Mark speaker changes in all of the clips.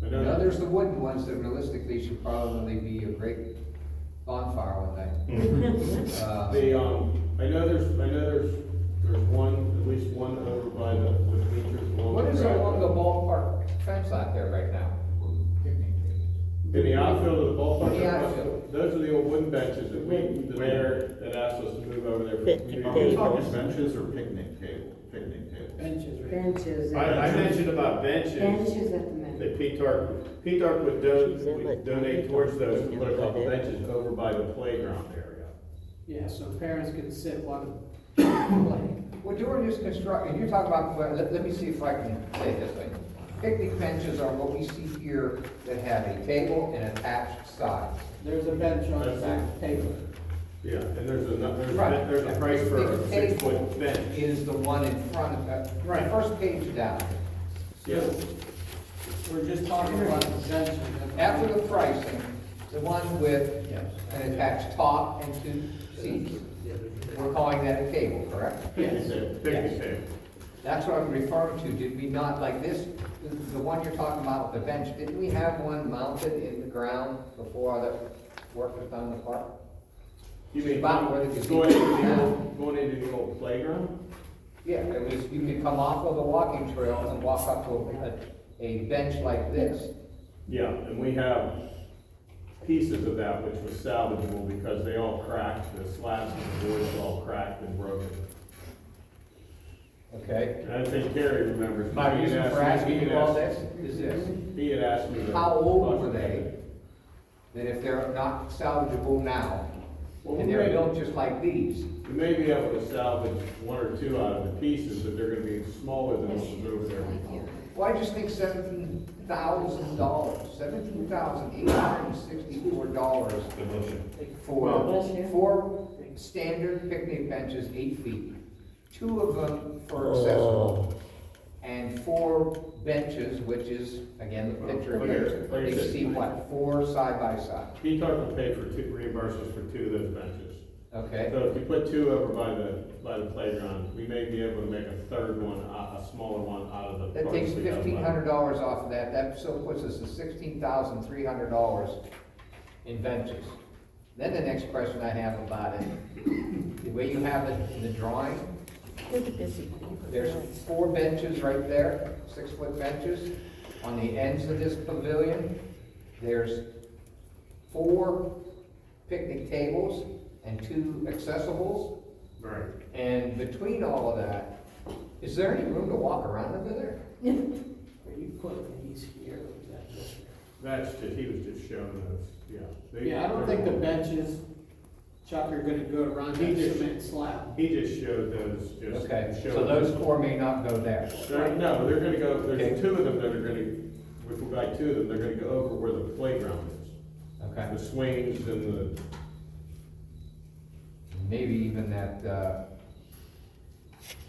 Speaker 1: Now, there's the wooden ones that realistically should probably be a great bonfire one night. Uh,
Speaker 2: The, um, I know there's, I know there's, there's one, at least one over by the, the bleachers along the
Speaker 1: What
Speaker 2: track.
Speaker 1: is along the ballpark fence out there right now?
Speaker 2: In the outfield of the ballpark.
Speaker 1: In the outfield.
Speaker 2: Those are the old wooden benches that we, the mayor that asked us to move over there. for the
Speaker 3: Picnic
Speaker 4: Are we
Speaker 2: community.
Speaker 4: talking benches or picnic table, picnic table?
Speaker 5: Benches.
Speaker 6: I, I mentioned about benches,
Speaker 5: Benches at the minute.
Speaker 6: that P-Tark, P-Tark would don-
Speaker 3: She's in, but-
Speaker 6: would donate towards those.
Speaker 2: Put a couple benches over by the playground area.
Speaker 7: Yeah, so parents can sit while
Speaker 1: Well, during this construction, you're talking about, well, let, let me see if I can say it this way. Picnic benches are what we see here that have a table and attached sides.
Speaker 7: there's a bench on the back table.
Speaker 2: Yeah, and there's a, there's,
Speaker 1: Right.
Speaker 2: a- there's a price for a
Speaker 1: Big table
Speaker 2: six-foot bench.
Speaker 1: Is the one in front of, uh, the
Speaker 7: Right.
Speaker 1: first page down.
Speaker 2: Yes.
Speaker 7: We're just talking about the benches. at the
Speaker 1: After the
Speaker 7: moment.
Speaker 1: pricing, the one with
Speaker 7: Yes.
Speaker 1: an attached top and two seats, we're calling that a table, correct?
Speaker 7: Yes.
Speaker 2: Picnic table,
Speaker 1: Yes.
Speaker 2: picnic table.
Speaker 1: That's what I'm referring to, did we not, like this, the the one you're talking about with the bench, didn't we have one mounted in the ground before all the work was done in the park?
Speaker 2: You mean,
Speaker 1: About where they could
Speaker 2: going into the
Speaker 1: be.
Speaker 2: old, going into the old playground?
Speaker 1: Yeah, it was, you could come off of the walking trail and walk up to a, a bench like this.
Speaker 2: Yeah, and we have pieces of that which was salvageable because they all cracked, the slabs and the boards all cracked and broken.
Speaker 1: Okay.
Speaker 2: And I think Gary remembers.
Speaker 1: My
Speaker 2: He had
Speaker 1: reason
Speaker 2: asked me-
Speaker 1: for
Speaker 2: he
Speaker 1: asking
Speaker 2: had
Speaker 1: you all
Speaker 2: asked-
Speaker 1: this is this,
Speaker 2: He had asked me. to-
Speaker 1: how old were they? That if they're not salvageable now,
Speaker 2: Well,
Speaker 1: and
Speaker 2: we
Speaker 1: they're
Speaker 2: made-
Speaker 1: built just like these,
Speaker 2: We may be able to salvage one or two out of the pieces, but they're gonna be smaller than what was over there.
Speaker 1: Well, I just think seventeen thousand dollars, seventeen thousand eight hundred and sixty-four dollars for four standard picnic benches, eight feet. Two of them for accessible, and four benches, which is, again, the picture
Speaker 2: Like I-
Speaker 1: here,
Speaker 2: like I
Speaker 1: you
Speaker 2: said-
Speaker 1: see what, four side by side,
Speaker 2: He talked to pay for two, reimburse us for two of those benches.
Speaker 1: okay?
Speaker 2: So if you put two over by the, by the playground, we may be able to make a third one, a, a smaller one out of the.
Speaker 1: That takes
Speaker 2: parts we have left.
Speaker 1: fifteen hundred dollars off of that, that still puts us at sixteen thousand three hundred dollars in ventures. Then the next question I have about it, the way you have it in the drawing, there's four benches right there, six-foot benches, on the ends of this pavilion. There's four picnic tables and two accessibles,
Speaker 2: Right.
Speaker 1: and between all of that, is there any room to walk around over there?
Speaker 7: Are you putting these here or is that just here?
Speaker 2: That's just, he was just showing those, yeah. They-
Speaker 7: Yeah, I don't think the benches, Chuck, are gonna go around that cement slab.
Speaker 2: He just showed those, just.
Speaker 1: Okay, so
Speaker 2: showed-
Speaker 1: those four may not go there.
Speaker 2: They're- No, they're gonna go,
Speaker 1: Okay.
Speaker 2: there's two of them that are gonna, if we buy two of them, they're gonna go over where the playground is.
Speaker 1: Okay,
Speaker 2: The swings and the,
Speaker 1: maybe even that, uh,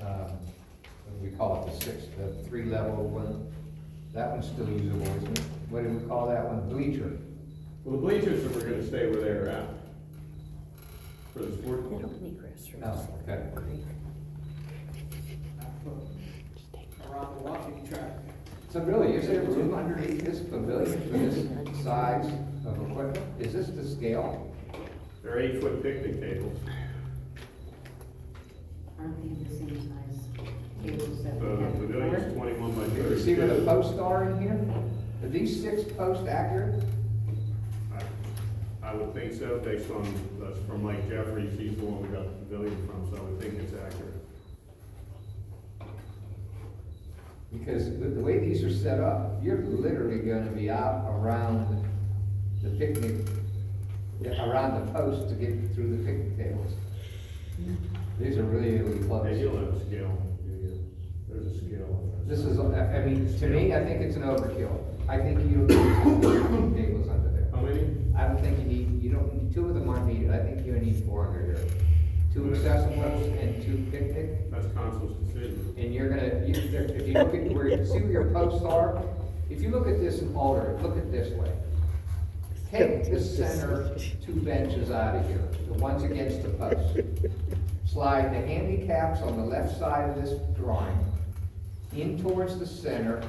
Speaker 1: um, what do we call it, the six, the three-level one? That one's still usable, isn't it? What do we call that one? Bleacher?
Speaker 2: well, the bleachers are gonna stay where they are at. For the sport.
Speaker 1: Oh, okay.
Speaker 7: I put Around the walking track.
Speaker 1: So really, is there room underneath this pavilion for this size of equipment? Is this the scale?
Speaker 2: They're eight foot picnic tables,
Speaker 5: Aren't they the same size tables that
Speaker 2: so
Speaker 5: we
Speaker 2: the
Speaker 5: have?
Speaker 2: pavilion's
Speaker 5: before?
Speaker 2: Uh, twenty-one by
Speaker 1: You
Speaker 2: thirty-two.
Speaker 1: see where the posts are in here? Are these six posts accurate?
Speaker 2: I- I would think so, based on, that's from Mike Jeffries, he's the one we got the pavilion from, so I would think it's accurate.
Speaker 1: Because the, the way these are set up, you're literally gonna be out around the picnic, yeah, around the post to get through the picnic tables. These are really, really
Speaker 2: Hey,
Speaker 1: close.
Speaker 2: you'll have a scale, there's a scale on this.
Speaker 1: This is, I, I mean, to me, I think it's an overkill. I think you don't need two picnic tables under there.
Speaker 2: How many?
Speaker 1: I don't think you need, you don't, need two of them aren't needed. I think you need four under there. Two accessibles and two picnic.
Speaker 2: That's council's decision.
Speaker 1: and you're gonna, you, there- if you look at where, see where your posts are? If you look at this and alter it, look at this way. Take the center two benches out of here, the ones against the post. Slide the handicaps on the left side of this drawing in towards the center